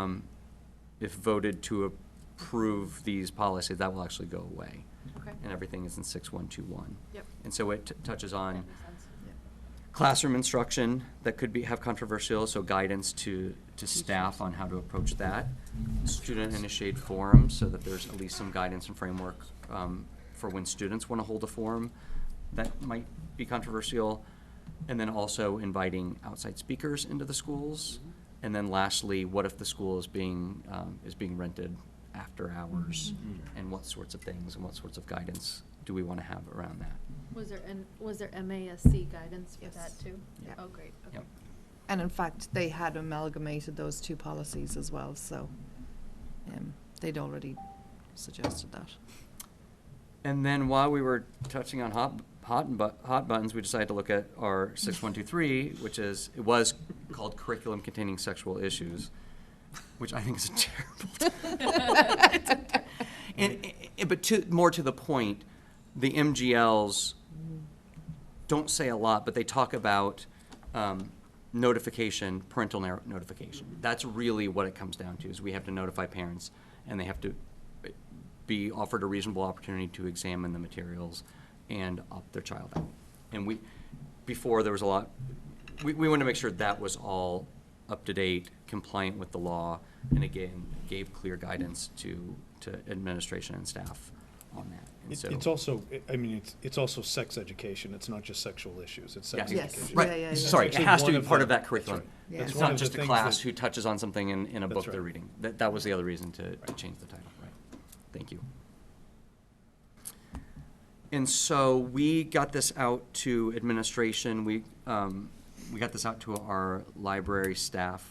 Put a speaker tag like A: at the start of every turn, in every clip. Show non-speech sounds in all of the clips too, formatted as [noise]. A: um, if voted to approve these policies, that will actually go away.
B: Okay.
A: And everything is in 6121.
B: Yep.
A: And so it t- touches on
B: That makes sense.
A: classroom instruction that could be, have controversial, so guidance to, to staff on how to approach that. Student initiated forums, so that there's at least some guidance and framework um, for when students want to hold a forum that might be controversial. And then also inviting outside speakers into the schools. And then lastly, what if the school is being, um, is being rented after hours? And what sorts of things and what sorts of guidance do we want to have around that?
B: Was there, an was there MASC guidance for that
C: Yes.
B: too?
A: Yeah.
B: Oh, great, okay.
A: Yep.
C: And in fact, they had amalgamated those two policies as well, so um, they'd already suggested that.
A: And then while we were touching on hot, hot, and bu- hot buttons, we decided to look at our 6123, which is, it was called Curriculum Containing Sexual Issues, which I think is a [laughs] terrible. and, and, but to, more to the point, the MGLs don't say a lot, but they talk about um, notification, parental nar- notification. That's really what it comes down to, is we have to notify parents, and they have to eh, be offered a reasonable opportunity to examine the materials and opt their child out. And we, before, there was a lot, we, we wanted to make sure that was all up to date, compliant with the law, and again, gave clear guidance to, to administration and staff on that. And
D: It-
A: so-
D: It's also, I- I mean, it's, it's also sex education, it's not just sexual issues, it's
A: Yes.
D: sex
C: Yes.
D: education.
C: Yeah, yeah, yeah.
A: Right, sorry, it
D: That's
A: has to
D: actually
A: be
D: one
A: part
D: the-
A: of that
D: that's
A: curriculum.
D: right.
C: Yeah.
D: That's
A: It's
D: one
A: not
D: of the
A: just a
D: things
A: class
D: that-
A: who touches on something in, in a
D: That's
A: book they're
D: right.
A: reading. That, that was the other reason to, to change the title, right. Thank you. And so we got this out to administration, we, um, we got this out to our library staff.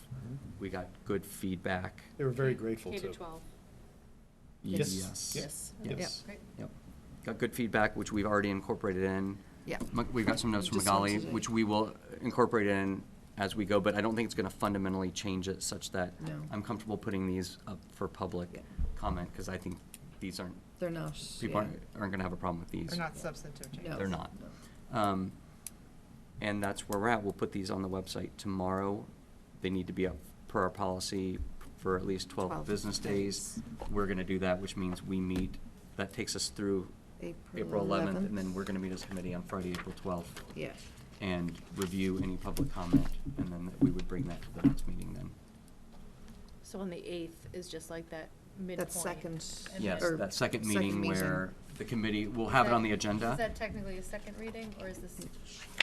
A: We got good feedback. E
D: They were very grateful
B: K
D: to.
B: to twelve.
C: Yes.
D: Yeah.
C: Yes.
D: Yes.
B: Great.
A: Yep. Got good feedback, which we've already incorporated in.
C: Yeah.
A: Ma- We've got some notes from
C: Just saw
A: Magali,
C: today.
A: which we will incorporate in as we go, but I don't think it's gonna fundamentally change it such that
C: No.
A: I'm comfortable putting these up for
C: Yeah.
A: public comment, because I think these aren't,
C: They're not.
A: people
C: yeah.
A: aren't, aren't gonna have a problem with these.
E: They're not substantive changes.
C: No.
A: They're not. Um, And that's where we're at. We'll put these on the website tomorrow. They need to be up per our policy for at least 12
C: Twelve
A: business days. We're going to do that, which means we meet, that takes us through
C: April
A: April 11th, and
C: 11th.
A: then we're going to meet as a committee on Friday, April 12th,
C: Yeah.
A: and review any public comment, and then we would bring that to the next meeting then.
B: So on the eighth is just like that midpoint.
C: That second.
B: and
A: Yes,
B: then-
C: or
A: that second meeting where the committee, we'll have it
B: That-
A: on the agenda.
B: Is that technically a second reading or is this?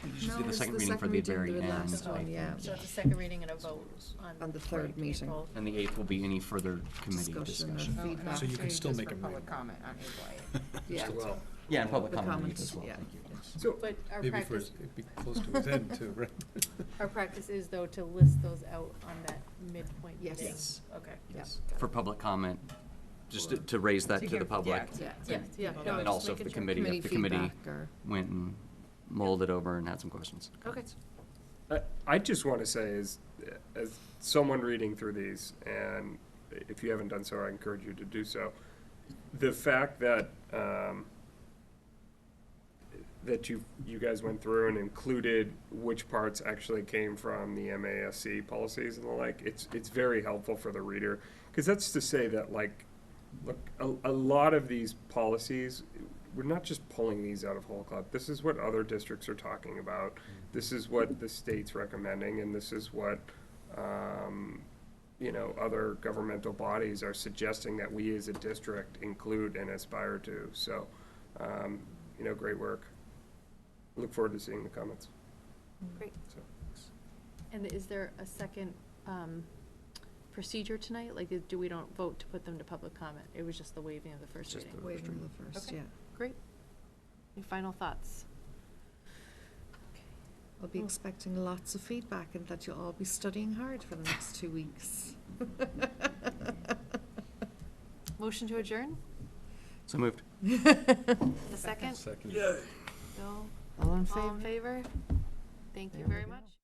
A: We just
C: No,
A: did the
C: it's
A: second
C: the
A: reading for
C: second
A: the
C: reading,
A: very
C: the
A: end.
C: last
A: I
C: one,
A: think.
C: yeah.
B: So it's a second reading and a vote on.
C: On the third
B: Right.
C: meeting.
B: April.
A: And the eighth will be any further committee
C: Discussion or
E: Oh,
A: discussion.
E: and
C: Feedback.
D: So you can
E: opportunities
D: still
E: just
D: make
E: for
D: a
E: Public
D: minor.
E: comment on April
C: Yeah.
A: Yeah, and public
C: The
A: comment
C: comments,
A: as well,
C: yeah.
A: thank you. yes.
D: So
B: But our
D: maybe for-
B: practice-
D: It'd be close to his
B: [laughs]
D: end too, right?
B: Our practice is though to list those out on that midpoint
C: Yes.
B: meeting.
C: Yes.
B: Okay.
C: Yeah.
A: Yes, for public comment, just to- to raise that to
E: hear-
A: the public.
E: yeah.
C: Yeah.
B: Yes, yeah. no,
A: And
B: I'm
A: then
B: just
A: also if
B: making
A: the
B: sure.
A: committee, if the committee
C: feedback or-
A: went and mulled it over and had some questions.
B: Okay.
F: I- I just want to say, as, as someone reading through these, and if you haven't done so, I encourage you to do so, the fact that, um, that you, you guys went through and included which parts actually came from the MASC policies and the like, it's, it's very helpful for the reader. Because that's to say that, like, look, a, a lot of these policies, we're not just pulling these out of whole cloth. This is what other districts are talking about. This is what the state's recommending, and this is what, um, you know, other governmental bodies are suggesting that we as a district include and aspire to. So, um, you know, great work. Look forward to seeing the comments.
B: Great.
F: So,
B: And is there a second um, procedure tonight? Like, is- do we don't vote to put them to public comment? It was just the waiving of the first
A: Just
B: reading?
A: the-
C: Wait until the first,
B: Okay.
C: yeah.
B: Great. Any final thoughts?
C: I'll be
B: Oh.
C: expecting lots of feedback and that you'll all be studying hard for the next two weeks. [laughs]
B: Motion to adjourn?
A: So moved.
B: The second?
D: Second.
B: Bill?
C: All in
B: All in
C: favor?
B: favor? Thank you
C: There we
B: very
C: go.
B: much.